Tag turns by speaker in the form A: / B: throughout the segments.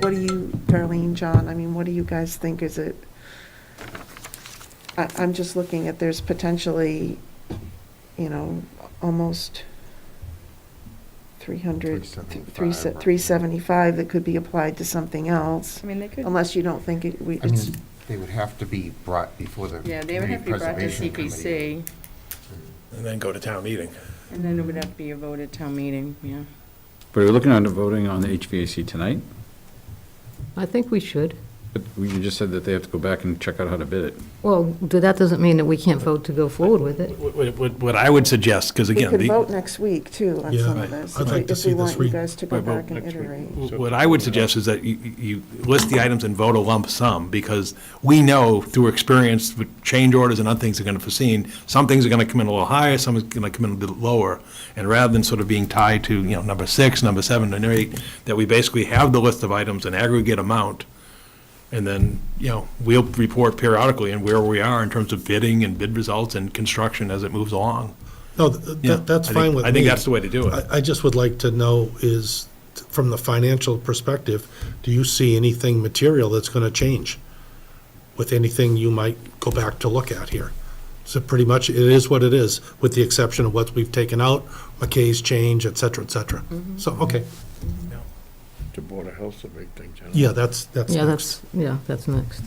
A: What do you, Darlene, John, I mean, what do you guys think? Is it, I, I'm just looking at, there's potentially, you know, almost 300,
B: 375.
A: 375 that could be applied to something else,
C: I mean, they could.
A: unless you don't think it, we,
B: I mean,
A: it's,
B: they would have to be brought before the
C: Yeah, they would have
B: Community
C: to be brought to
B: Preservation Committee.
C: CPC,
D: Mm.
E: and then go to town meeting.
C: and then it would have to be a vote at town meeting, yeah.
F: But we're looking at voting on the HVAC tonight,
G: I think we should.
F: but we you just said that they have to go back and check out how to bid it.
G: Well, th- that doesn't mean that we can't vote to go forward with it.
E: What- What what- what I would suggest, because
A: we
E: again,
A: could
E: the.
A: vote next week, too, on
H: Yeah,
A: some of
H: right.
A: this.
H: I'd
A: if we-
H: like to see
A: If we
H: this
A: want you
H: week.
A: guys to go
E: Wait, wait,
A: back and
E: next week.
A: iterate.
E: What I would suggest is that you, you you list the items and vote a lump sum, because we know through experience with change orders and other things that are going to foreseen, some things are going to come in a little higher, some is going to come in a little lower. And rather than sort of being tied to, you know, number six, number seven, and eight, that we basically have the list of items and aggregate amount, and then, you know, we'll report periodically and where we are in terms of bidding and bid results and construction as it moves along.
H: No, th-
E: Yeah,
H: that, that's
E: I think-
H: fine with me.
E: I think that's the way to do it.
H: I, I just would like to know is, t- from the financial perspective, do you see anything material that's gonna change? With anything you might go back to look at here? So pretty much, it is what it is, with the exception of what we've taken out, McKay's change, et cetera, et cetera.
G: Mm-hmm.
H: So, okay,
D: The Board of Health's a big thing, John.
H: yeah, that's, that's
G: Yeah,
H: next.
G: that's, yeah, that's next.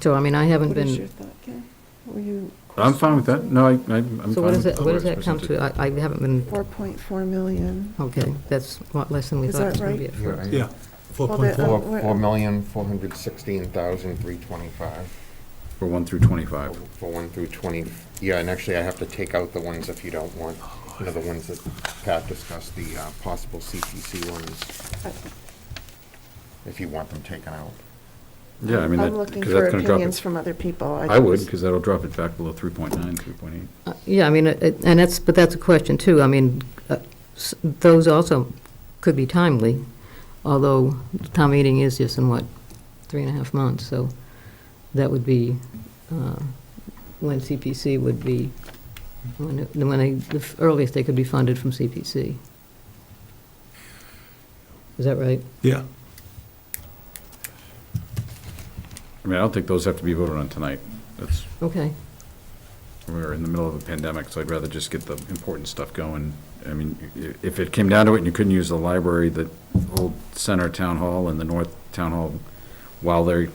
G: So, I mean, I haven't
A: What is your
G: been,
A: thought, Ken? Were you?
F: I'm fine with that. No, I, I- I'm fine.
G: so what does
F: with
G: that, what does
F: the way
G: that
F: it's
G: come to?
F: presented.
G: I, I haven't been,
A: 4.4 million.
G: okay, that's a lot less than we
A: Is
G: thought it
A: that
G: was going
A: right?
G: to be at
B: Yeah,
G: first.
B: right.
E: Yeah.
H: Four
A: Well,
H: point
A: the-
H: four,
G: uh,
B: Four, four million, four hundred sixteen thousand, three twenty-five,
F: For one through 25.
B: for one through twenty, yeah, and actually I have to take out the ones if you don't want, you know, the ones that Pat discussed, the uh, possible CPC ones, if you want them taken out.
F: Yeah, I mean,
A: I'm
F: that,
A: looking
F: because
A: for
F: that's going to drop
A: opinions
F: it.
A: from other people.
F: I would,
A: just-
F: because that'll drop it back below 3.9, 3.8.
G: Uh, Yeah, I mean, it- it- and that's, but that's a question too. I mean, uh, s- those also could be timely, although town meeting is just in what, three and a half months, so that would be uh, when CPC would be, when, it- when they, the earliest they could be funded from CPC. Is that right?
E: Yeah.
F: I mean, I don't think those have to be voted on tonight. That's,
G: Okay.
F: we're in the middle of a pandemic, so I'd rather just get the important stuff going. I mean, i- if it came down to it and you couldn't use the library, the old center town hall and the north town hall while they're,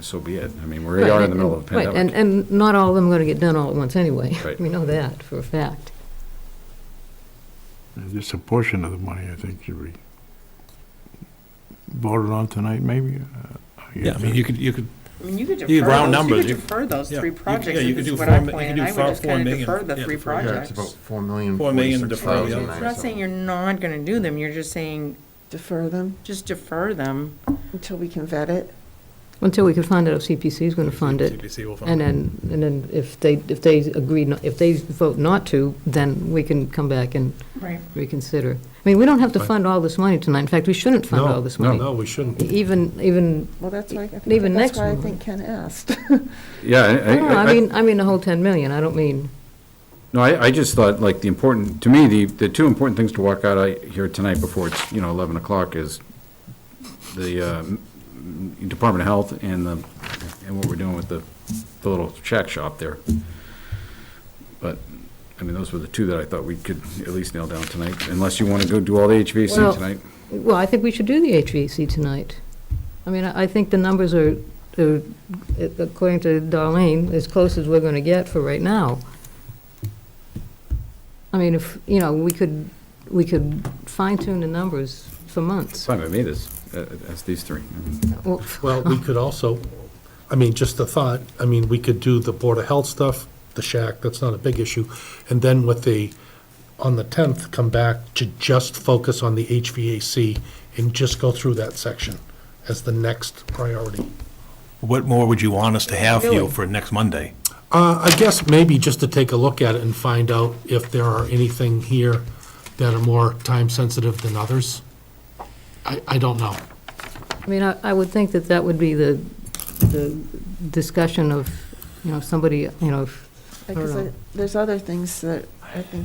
F: so be it. I mean, we already are in the middle of a
G: Right, and,
F: pandemic.
G: and not all of them are going to get done all at once anyway.
F: Right.
G: We know that for a fact.
D: Just a portion of the money, I think, should be voted on tonight, maybe? Uh,
E: Yeah, I mean, you could, you could
C: I mean, you could defer
E: You could round
C: those, you
E: numbers,
C: could
E: you-
C: defer those
E: yeah,
C: three
E: you could- yeah,
C: projects, if
E: you could
C: this
E: do
C: is what
E: four
C: I'm
E: mi- you could
C: planning,
E: do
C: I would
E: four-
C: just
E: four
C: kind of
E: million,
C: defer the
E: yeah,
C: three
E: defer, yeah,
B: Yeah, it's
C: projects.
B: about four million,
E: Four million
B: forty-six
E: defer, yeah.
B: thousand,
C: It's not saying
B: nine
C: you're not gonna do them, you're just saying,
A: Defer them
C: just defer them.
A: until we can vet it.
G: Until we could find out if CPC is going to fund it.
E: CPC will fund
G: And
E: it.
G: then, and then if they, if they agree, not- if they vote not to, then we can come back and
C: Right.
G: reconsider. I mean, we don't have to
H: Right.
G: fund all this money tonight. In fact, we shouldn't fund
H: No,
G: all this money.
H: no, we shouldn't.
G: Even, even,
A: Well, that's why, I think-
G: Even
A: that's
G: next
A: why I
G: month.
A: think Ken asked.
F: Yeah, I-
G: I don't know,
F: I-
G: I mean, I mean the whole 10 million. I don't mean,
F: No, I, I just thought, like, the important, to me, the, the two important things to walk out of here tonight before it's, you know, 11 o'clock is the uh, m- Department of Health and the, and what we're doing with the, the little shack shop there. But, I mean, those were the two that I thought we could at least nail down tonight, unless you want to go do all the
G: Well-
F: HVAC tonight.
G: well, I think we should do the HVAC tonight. I mean, I I think the numbers are, are, according to Darlene, as close as we're going to get for right now. I mean, if, you know, we could, we could fine tune the numbers for months.
F: It's fine by me, this, uh, that's these three. I mean,
G: Well,
H: Well, we could also, I mean, just a thought, I mean, we could do the Board of Health stuff, the shack, that's not a big issue, and then with the, on the 10th, come back to just focus on the HVAC and just go through that section as the next priority.
E: What more would you want us to have for you
C: Really?
E: for next Monday?
H: Uh, I guess maybe just to take a look at it and find out if there are anything here that are more time-sensitive than others. I, I don't know.
G: I mean, I I would think that that would be the, the discussion of, you know, if somebody, you know, if
A: Because I- there's other things that I think